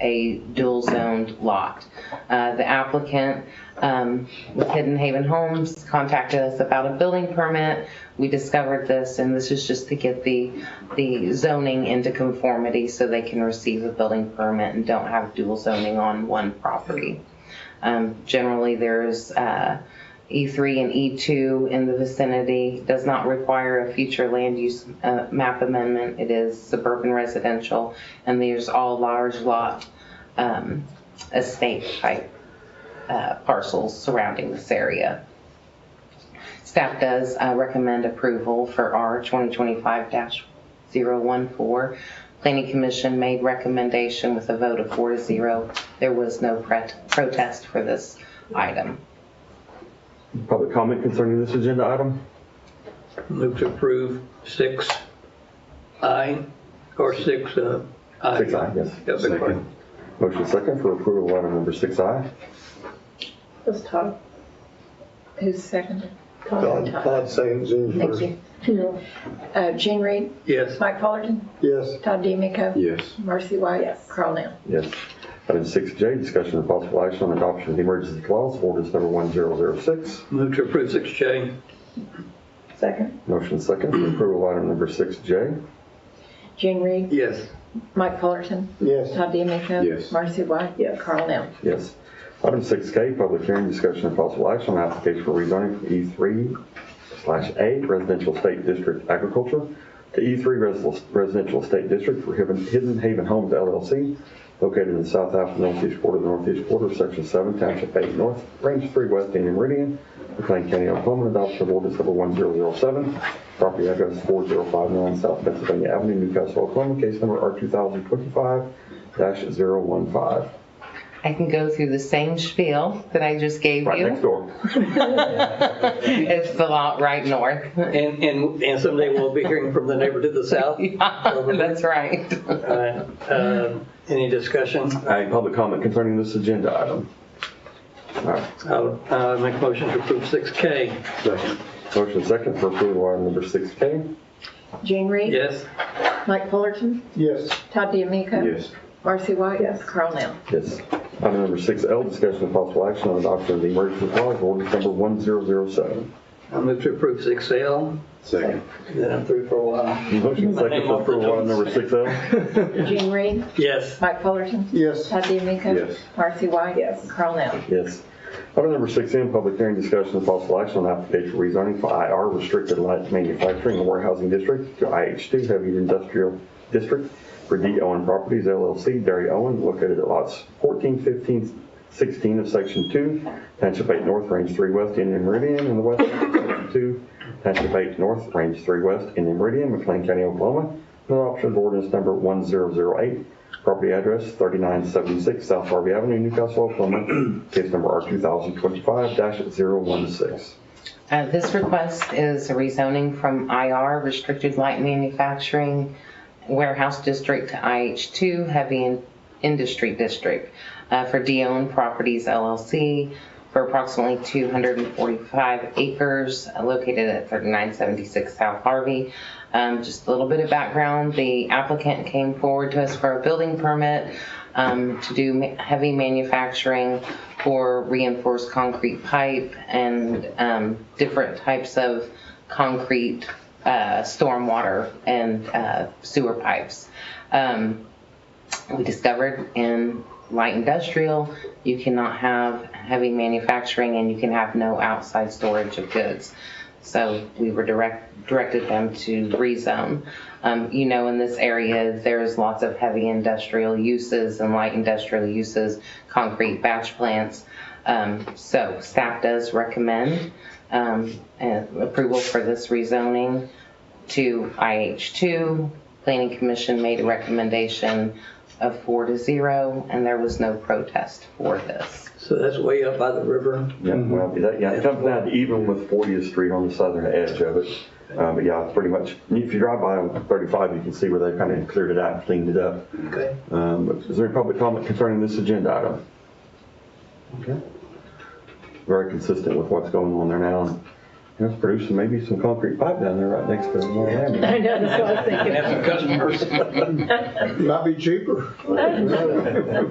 a dual zoned lot. Uh, The applicant um, with Hidden Haven Homes contacted us about a building permit. We discovered this, and this is just to get the, the zoning into conformity so they can receive a building permit and don't have dual zoning on one property. Um, Generally, there's uh, E3 and E2 in the vicinity, does not require a future land use uh, map amendment. It is suburban residential, and there's all large lot um, estate type uh, parcels surrounding this area. Staff does uh, recommend approval for R 2025-014. Planning Commission made recommendation with a vote of four to zero. There was no pret- protest for this item. Public comment concerning this agenda item? Move to approve six I, or six, uh, I. Six I, yes. Yeah, big pardon. Motion second for approval of item number six I. That's Todd. Who's second? Todd, Todd St. Jean Thank first. you. Uh, Gene Reed, Yes, Mike Fullerton, Yes, Todd DeMeco, Yes. Marcy White, Carl Nell. Yes. Item six J, discussion of possible action on adoption of the emergency clause, of ordinance number one zero zero six. move to approve six J. Second. Motion second for approval of item number six J. Gene Reed, Yes, Mike Fullerton, yes, Todd DeMeco. Yes. Marcy White, Carl Nell. Yes. Item six K, public hearing, discussion of possible action on application for rezoning from E three slash A residential state district agriculture to E three residential state district for Hidden Hidden Haven Homes LLC located in the south half of the northeast quarter, of the northeast quarter, section seven, township eight, north, range three, west, Indian Meridian, McLean County, Oklahoma, adoption of ordinance number one zero zero seven, property address four zero five nine South Pennsylvania Avenue, Newcastle, Oklahoma, case number R two thousand twenty-five dash zero one five, I can go through the same spiel that I just gave right next you. door. It's the lot right north. and, and, and someday we'll be hearing from the neighbor to the south. That's right. All right, um, Any discussion? Any public comment concerning this agenda item? All right, I'll, uh, make a motion to approve six K. Second. motion second for approval of item number 6K? Gene Reed. Yes, Mike Fullerton, yes, Todd DeMeco. Yes. Marcy White. Carl Nell. Yes. Item number 6L, discussion of possible action on adoption of the emergency clause, ordinance number 1007. I'll move to approve six L. Second. Then I'm through for a while. Motion second for approval of item number 6L? Gene Reed, Yes, Mike Fullerton, yes, Todd DeMeco. Yes. Marcy White. Carl Nell. Yes. Item number 6M, public hearing, discussion of possible action on application for rezoning for IR restricted light manufacturing and warehousing district to IH2 heavy industrial district for D. Owen Properties LLC, Derry Owen, located at lots 14, 15, 16 of Section 2, Township 8 North, Range 3 West, Indian Meridian, and the west end of Section 2, Township 8 North, Range 3 West, Indian Meridian, McLean County, Oklahoma, and adoption of ordinance number 1008, property address 3976 South Harvey Avenue, Newcastle, Oklahoma, case number R2025-016. Uh, This request is a rezoning from IR, Restricted Light Manufacturing Warehouse District, to IH2 Heavy In- Industry District uh, for Deone Properties LLC for approximately 245 acres uh, located at 3976 South Harvey. Um, Just a little bit of background, the applicant came forward to us for a building permit um, to do ma- heavy manufacturing for reinforced concrete pipe and um, different types of concrete uh, stormwater and uh, sewer pipes. Um, we discovered in light industrial, you cannot have heavy manufacturing and you can have no outside storage of goods. So we were direct, directed them to rezone. Um, you know, in this area, there's lots of heavy industrial uses and light industrial uses, concrete batch plants. Um, so staff does recommend, um, uh, approval for this rezoning to IH2. Planning Commission made a recommendation of four to zero, and there was no protest for this. so that's way up by the river. Yeah, well, that, yeah, it comes down to even with 40th Street on the southern edge of it. Um, But yeah, it's pretty much, if you drive by on 35, you can see where they kind of cleared it out and cleaned it up. Okay. Um, Is there any public comment concerning this agenda item? Okay. Very consistent with what's going on there now. and It's producing maybe some concrete pipe down there right next to the Moore Avenue. I know, that's what I was We thinking. have some customers. might be cheaper.